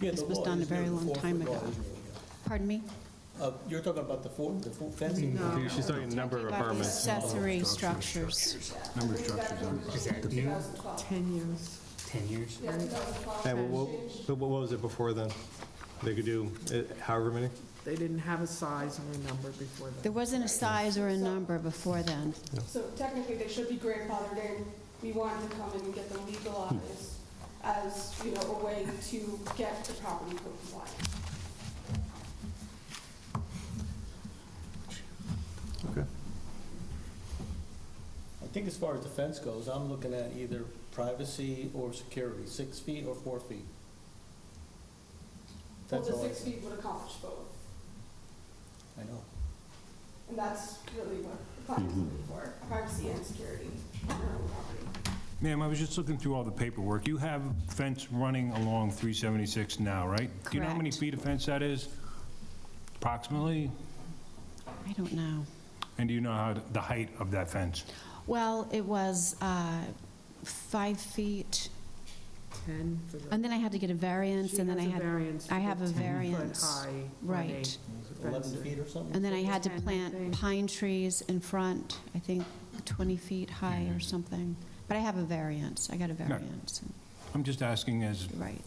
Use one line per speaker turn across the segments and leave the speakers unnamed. This was done a very long time ago. Pardon me?
Uh, You're talking about the four, the four fencing?
She's talking number of
About
apartments.
accessory structures.
Number structures on
Is that new?
10 years.
10 years?
Yeah, but what, but what was it before then? They could do uh, however many?
They didn't have a size or a number before that.
There wasn't a size or a number before then.
So technically, they should be grandfathered in. We wanted to come in and get them legalized as, you know, a way to get the property code compliant.
Okay.
I think as far as the fence goes, I'm looking at either privacy or security, six feet or four feet.
Well,
That's
the
all I,
six feet would accomplish both,
I know.
and that's really what the plan is looking for, privacy and security on our own property.
Ma'am, I was just looking through all the paperwork. You have fence running along 376 now, right? Do you know how many
Correct.
feet of fence that is approximately?
I don't know.
And do you know how, the height of that fence?
Well, it was uh, five feet,
10 for the...
and then I had to get a variance, and then I
She has a
had,
variance
I
for
have a
the 10 foot
variance.
high
right.
Eleven
Fencing.
feet or something?
And then I had to
Ten, I
plant
think.
pine trees in front, I think 20 feet high or something. But I have a variance, I got a variance,
I'm just asking as,
right,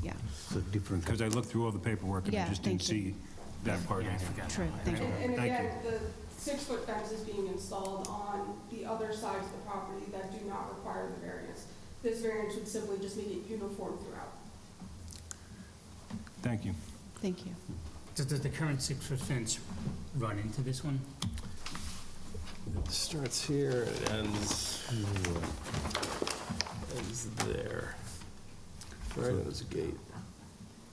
yeah,
the different
because I looked through all the paperwork and
Yeah,
I just didn't
thank you.
see that part. in
Yeah, I
there.
forgot.
true, thank you.
And- And
Thank
again, the six-foot fence is being installed on the other sides of the property that do not require the variance. This variance would simply just make it uniform throughout.
Thank you.
Thank you.
Does does the current six-foot fence run into this one?
It starts here, it ends, ends there. Right at this gate.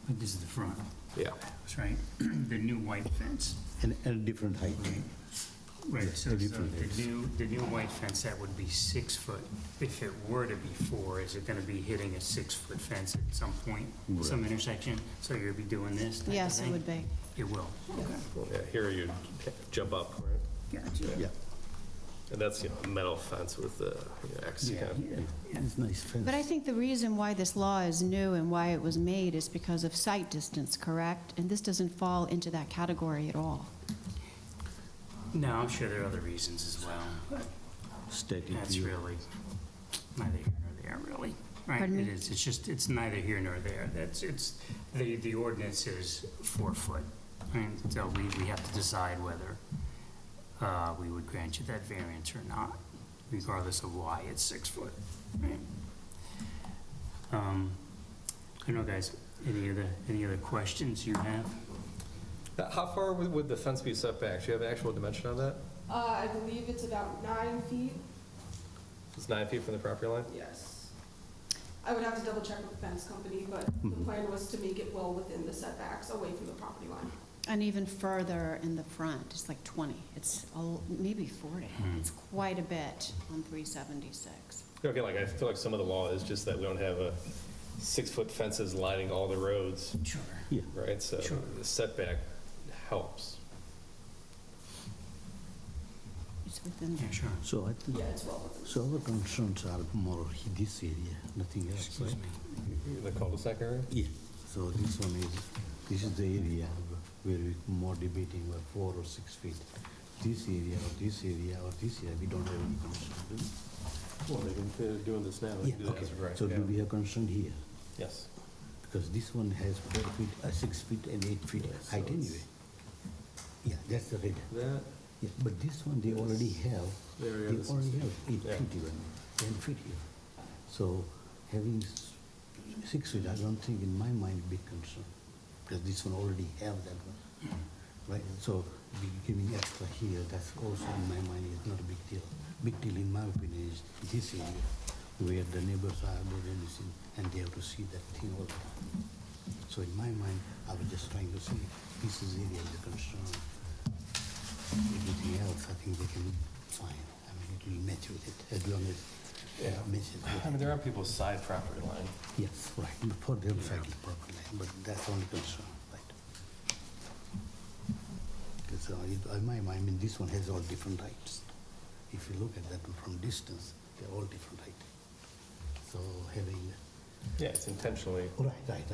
But This is the front,
Yeah.
that's right. The new white fence.
and, and a different height.
Right, so so
different heights.
the new, the new white fence, that would be six foot. If it were to be four, is it gonna be hitting a six-foot fence at some point, some intersection? So you'll be doing this type of
Yes, it
thing?
would be.
It will.
Yeah, here you jump up, right?
Gotcha.
Yeah,
And that's, you know, metal fence with the you know, X
Yeah,
kind of-
it's nice fence.
But I think the reason why this law is new and why it was made is because of sight distance, correct? And this doesn't fall into that category at all.
No, I'm sure there are other reasons as well.
Static
That's
view.
really neither here nor there, really. Right?
Pardon
It
me?
is, it's just, it's neither here nor there. That's, it's, the, the ordinance is four foot. And so we, we have to decide whether uh, we would grant you that variance or not, regardless of why it's six foot. right? Um, I don't know, guys, any other, any other questions you have?
Uh, How far would would the fence be set back? Do you have an actual dimension on that?
Uh, I believe it's about nine feet
It's nine feet from the property line?
Yes. I would have to double check with the fence company, but the plan was to make it well within the setbacks, away from the property line.
And even further in the front, it's like 20, it's a- maybe 40. It's quite a bit on 376.
Okay, like, I feel like some of the law is just that we don't have a six-foot fences lining all the roads,
Sure.
right? So
Sure.
the setback helps.
It's within
Yeah,
there.
sure.
Ah, So I think,
Yeah, it's well within.
so our concerns are more this area, nothing else,
Excuse
right?
me.
The cul-de-sac area?
Yeah, so this one is, this is the area where we more debating about four or six feet. This area or this area or this area, we don't have any concern. do we?
Well, they're doing this now.
Yeah, okay. So do we have concern here?
Yes.
Because this one has four feet, uh, six feet and eight feet
Yeah, so
height
it's-
anyway. Yeah, that's the red.
That,
Yeah, but this one, they already have, they
There, yeah, this is-
already have eight
Yeah.
feet even, ten feet here. So having s- six feet, I don't think in my mind big concern, because this one already have that one. Right, so we giving extra here, that's also in my mind is not a big deal. Big deal in my opinion is this area, where the neighbors are doing anything, and they have to see that thing all the time. So in my mind, I was just trying to say, this is area of the concern. Everything else, I think they can find, I mean, it will match with it, as uh, long as
Yeah.
it matches
I mean,
with it.
they're on people's side property line.
Yes, right, before they'll cycle properly, but that's only concern, right? Because uh, in my mind, I mean, this one has all different heights. If you look at that one from distance, they're all different height. So having,
Yeah, it's intentionally
right, right,